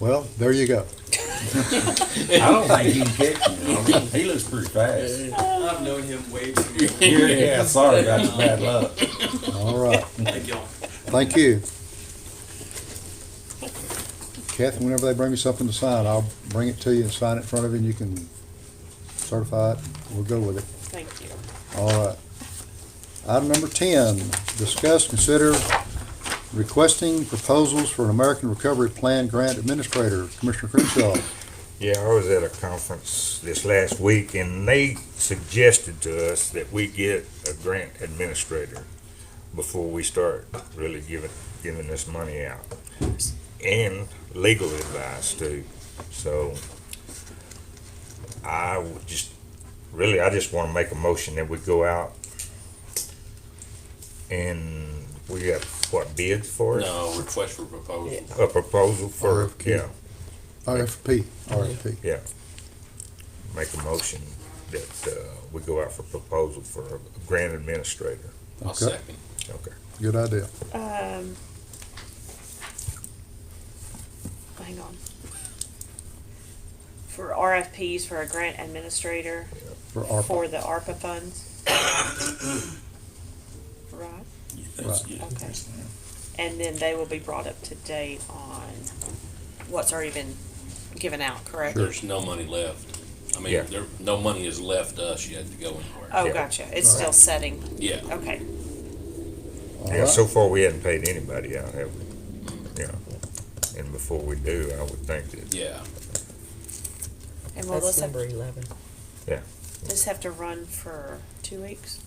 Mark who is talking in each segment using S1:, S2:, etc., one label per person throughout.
S1: Well, there you go.
S2: I don't think he can catch me. I mean, he looks pretty fast.
S3: I've known him way too long.
S2: Yeah, yeah, sorry about your bad luck.
S1: All right.
S3: Thank y'all.
S1: Thank you. Kathy, whenever they bring me something to sign, I'll bring it to you and sign it in front of you, and you can certify it. We'll go with it.
S4: Thank you.
S1: All right. Item number ten, discuss, consider requesting proposals for an American Recovery Plan Grant Administrator, Commissioner Crenshaw.
S5: Yeah, I was at a conference this last week and they suggested to us that we get a grant administrator before we start really giving, giving this money out. And legal advice too. So I would just, really, I just want to make a motion that we go out and we got, what, bids for it?
S6: No, request for proposal.
S5: A proposal for,
S1: RFQ.
S5: yeah.
S1: RFP, RFP.
S5: make a motion that uh, we go out for proposal for a grant administrator.
S6: I'll
S1: Okay.
S6: second.
S5: Okay.
S1: Good idea.
S4: Um, hang on. For RFPs for a grant administrator
S1: For ARPA.
S4: for the ARPA funds. Right,
S1: Right.
S4: okay. And then they will be brought up to date on what's already been given out, correct?
S6: There's no money left. I
S5: Yeah.
S6: mean, there, no money has left us yet to go anywhere.
S4: Oh,
S5: Yeah.
S4: gotcha, it's still setting,
S6: Yeah,
S4: okay.
S1: All
S5: Yeah,
S1: right.
S5: so far we hadn't paid anybody out, have we? Yeah. And before we do, I would think that,
S6: yeah.
S4: And will
S7: That's
S4: this have,
S7: number eleven.
S4: this have to run for two weeks?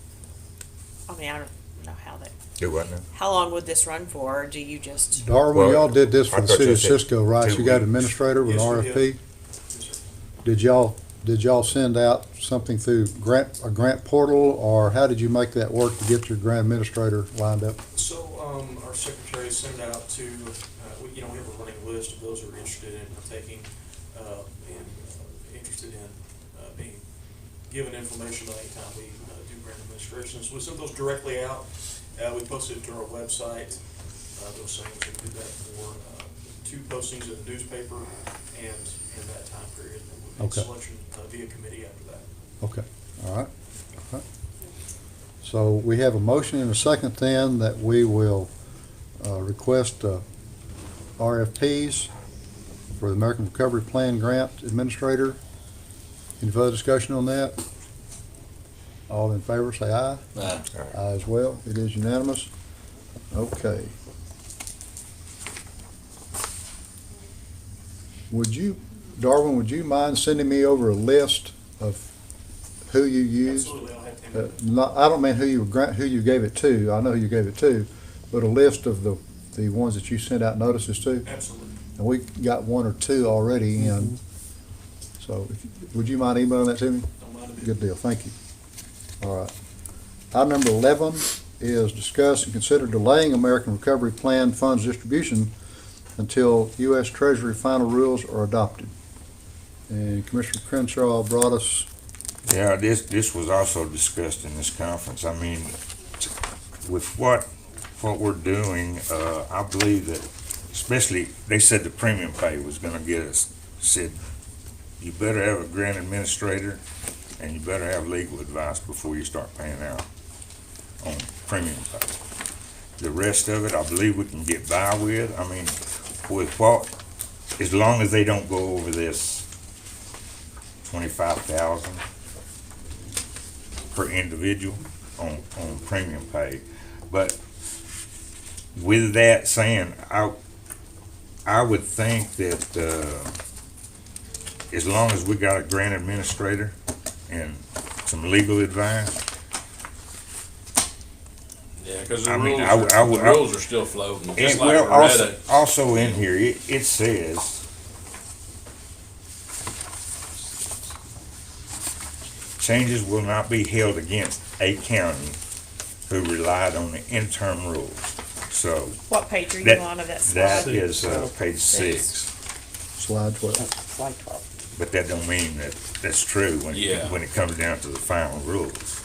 S4: I mean, I don't know how that,
S5: do what now?
S4: how long would this run for, or do you just?
S1: Darwin,
S5: Well,
S1: y'all did this for
S5: I
S1: the
S5: thought
S1: city
S5: you
S1: of
S5: said
S1: Cisco, right?
S5: two
S1: You got
S5: weeks.
S1: administrator with an
S3: Yes, we did.
S1: RFP? Did y'all, did y'all send out something through grant, a grant portal, or how did you make that work to get your grant administrator lined up?
S3: So, um, our secretary sent out to, uh, we, you know, we have a running list of those who are interested in partaking, uh, and uh, interested in, uh, being given information by any time we, uh, do grant administrations. We sent those directly out, uh, we posted it to our website, uh, those things, we did that for, uh, two postings in the newspaper and in that time period. and we made
S1: Okay.
S3: Selection, uh, via committee after that.
S1: Okay, all right. all right. So we have a motion and a second then that we will uh, request uh, RFPs for the American Recovery Plan Grant Administrator. Any further discussion on that? All in favor, say aye.
S6: Uh,
S1: Aye as well, it is unanimous. Okay. Would you, Darwin, would you mind sending me over a list of who you used?
S3: Absolutely, I'll have to.
S1: Uh, Not, I don't mean who you, grant who you gave it to, I know who you gave it to, but a list of the, the ones that you sent out notices to.
S3: Absolutely.
S1: And we got one or two already in. So if- would you mind emailing that to me?
S3: Don't mind a bit.
S1: Good deal, thank you. All right. Item number eleven is discuss and consider delaying American Recovery Plan funds distribution until U.S. Treasury final rules are adopted. And Commissioner Crenshaw brought us,
S5: Yeah, this, this was also discussed in this conference. I mean, with what, what we're doing, uh, I believe that, especially, they said the premium pay was gonna get us, said, you better have a grant administrator and you better have legal advice before you start paying out on premium pay. The rest of it, I believe we can get by with. I mean, with what, as long as they don't go over this twenty-five thousand per individual on, on premium pay. But with that saying, I, I would think that, uh, as long as we got a grant administrator and some legal advice,
S6: yeah, because
S5: I
S6: the
S5: mean,
S6: rules,
S5: I would- I
S6: are-
S5: would-
S6: the
S5: I-
S6: rules are still floating, just
S5: and
S6: like
S5: well, also,
S6: Loretta.
S5: also in here, it, it says changes will not be held against a county who relied on the interim rules. So
S4: What page are you
S5: That-
S4: on of that slide?
S5: that is, uh, page six.
S1: slide twelve.
S7: Slide twelve.
S5: But that don't mean that that's true when,
S6: Yeah.
S5: it when it comes down to the final rules.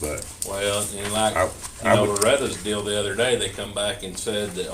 S5: But
S6: Well, and like,
S5: I-
S6: you
S5: I
S6: know,
S5: would-
S6: Loretta's deal the other day, they come back and said that